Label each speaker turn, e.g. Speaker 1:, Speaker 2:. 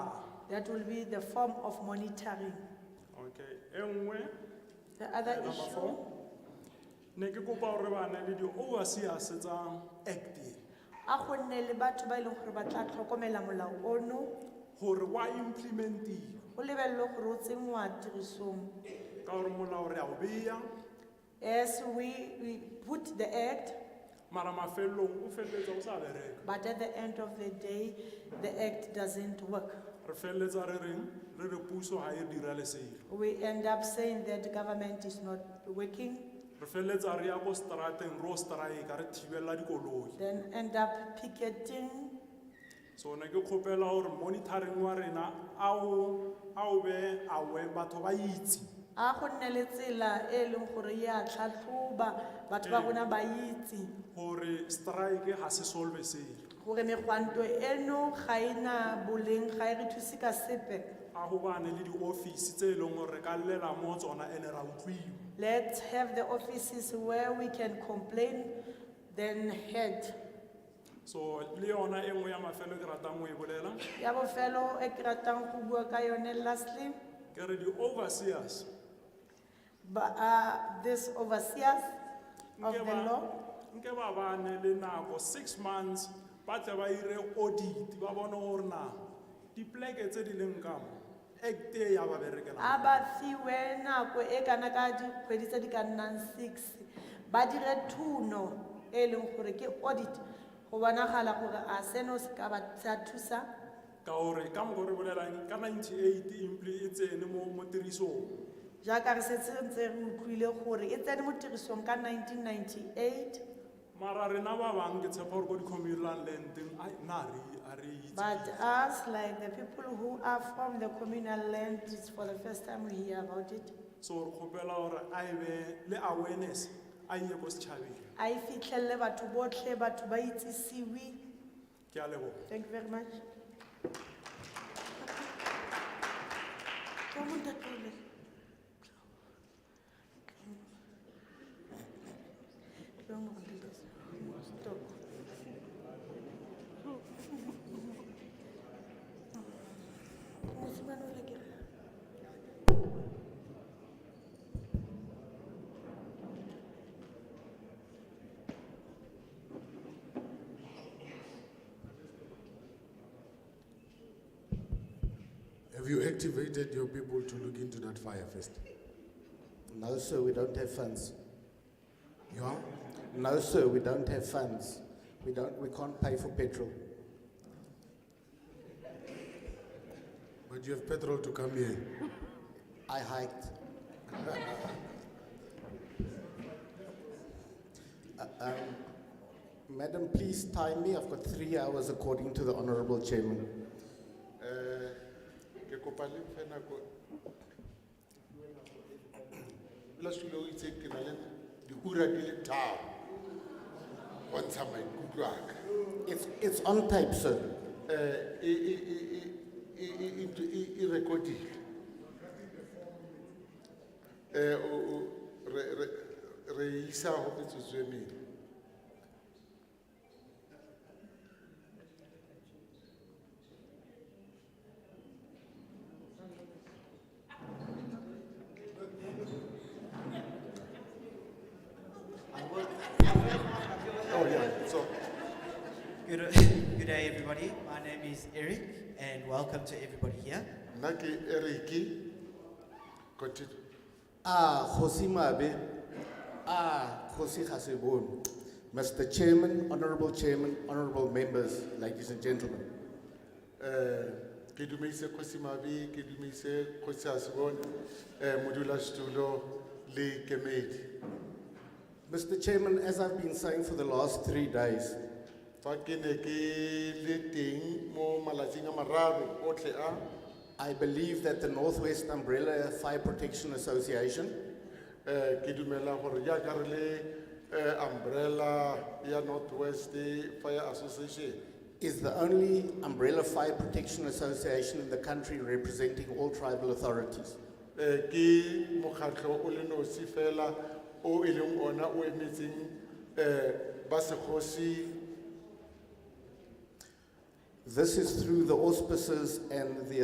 Speaker 1: That will be the form of monitoring.
Speaker 2: okay e nngwe
Speaker 1: The other
Speaker 2: number four
Speaker 1: issue,
Speaker 2: ne ke kopa gore bana le di-overseers tsa act
Speaker 1: a go nne le batho ba e leng gore ba tla tlhokomela molao ono,
Speaker 2: gore wa implementiwa
Speaker 1: o lebelele gore o tsenngwa tirisong.
Speaker 2: ka gore molao re a o beya
Speaker 1: Yes, we, we put the act,
Speaker 2: mara mafelelong o feleletsa o sa bereka
Speaker 1: but at the end of the day, the act doesn't work.
Speaker 2: re feleletsa re reng re re puso ga e dira leselo
Speaker 1: We end up saying that government is not working,
Speaker 2: re feleletsa re ya ko strateng ro strike re thibelela dikoloi
Speaker 1: then end up picketing.
Speaker 2: so ne ke kgopela gore monitoring wa rena a o a o be awe batho ba itse
Speaker 1: A go nne le tsela e leng gore ya tlhatlhoba batho ba
Speaker 2: Ee.
Speaker 1: rona ba itse
Speaker 2: gore strike ga se solve selo
Speaker 1: gore megwanto eno ga ena boleng ga e re thuse ka sepe.
Speaker 2: a go bane le di-office tse e leng gore re ka llela mo tsona ene ra utlwiwa
Speaker 1: Let's have the offices where we can complain, then head.
Speaker 2: so le yona e nngwe ya mafelo ke ratang go e bolela
Speaker 1: Ya bofelo e ke ratang go bua ka yone lastly,
Speaker 2: ke re di-overseers
Speaker 1: ba, uh, this overseers of
Speaker 2: nke
Speaker 1: the
Speaker 2: ba-
Speaker 1: law.
Speaker 2: nke ba bane le nako six months ba tle ba ire audit ba bone gore na dipoleke tse di leng kamo act e ya ba berekelang
Speaker 1: A ba fiwe nako e kana ka dikgwedi tse di ka nnang six, ba dire thuno e leng gore ke audit, go bonagala gore a seno se ka ba sa thusa.
Speaker 2: ka gore ka moko re bolelang ka ninety-eight impli e tsene mo mo tirisong
Speaker 1: Jaaka re setse ntse re utlwile gore e tsene mo tirisong ka nineteen ninety-eight,
Speaker 2: mara rena ba bangwe ke tshepa gore ko di-communal landeng ai, na re- a re itse
Speaker 1: but us, like the people who are from the communal land, it's for the first time we hear about it.
Speaker 2: so re kgopela gore a e be le awareness a ye ko setšhabeng
Speaker 1: a e fitlhelele batho botlhe batho ba itsisiwe
Speaker 2: ke a leboga
Speaker 1: thank you very much Ke mo ntatele. Ke mo ntatele. Stop. Mosimane o le ke re.
Speaker 3: Have you activated your people to look into that fire first?
Speaker 4: No, sir, we don't have funds.
Speaker 3: You are?
Speaker 4: No, sir, we don't have funds. We don't, we can't pay for petrol.
Speaker 3: But you have petrol to come here.
Speaker 4: I hiked. Uh, um, Madam, please time me. I've got three hours according to the Honorable Chairman.
Speaker 5: Eh, ke kopa le mphe nako. Leslie o itse ke na le diura di le tharo. Ho ntsha maikutlo a ka.
Speaker 4: It's, it's on tape, sir.
Speaker 5: Eh, e- e- e- e- e- e- e- ntho e- e recordile. Eh, o- o- re- re- re e isa ho metsotso e mene.
Speaker 4: Oh, yeah.
Speaker 5: So,
Speaker 6: Good, good day, everybody. My name is Eric, and welcome to everybody here.
Speaker 5: nna ke Eric. Continue.
Speaker 4: Ah, Khosi Mabe. Ah, Khosi Hasebon. Mr. Chairman, Honorable Chairman, Honorable Members, ladies and gentlemen.
Speaker 5: Eh, ke dumeise kgosi mabi ke dumeise kgosi asbon eh, modulasetulo le kemedi
Speaker 4: Mr. Chairman, as I've been saying for the last three days,
Speaker 5: fa ke ne ke le teng mo malatsing a mararo otlhe a
Speaker 4: I believe that the Northwest Umbrella Fire Protection Association
Speaker 5: eh, ke dumela gore jaaka re le eh, umbrella ya north west fire association
Speaker 4: is the only umbrella fire protection association in the country representing all tribal authorities.
Speaker 5: eh, ke mokgatlho o le nosi fela o e leng ona o emetseng eh, ba segosi
Speaker 4: This is through the auspices and the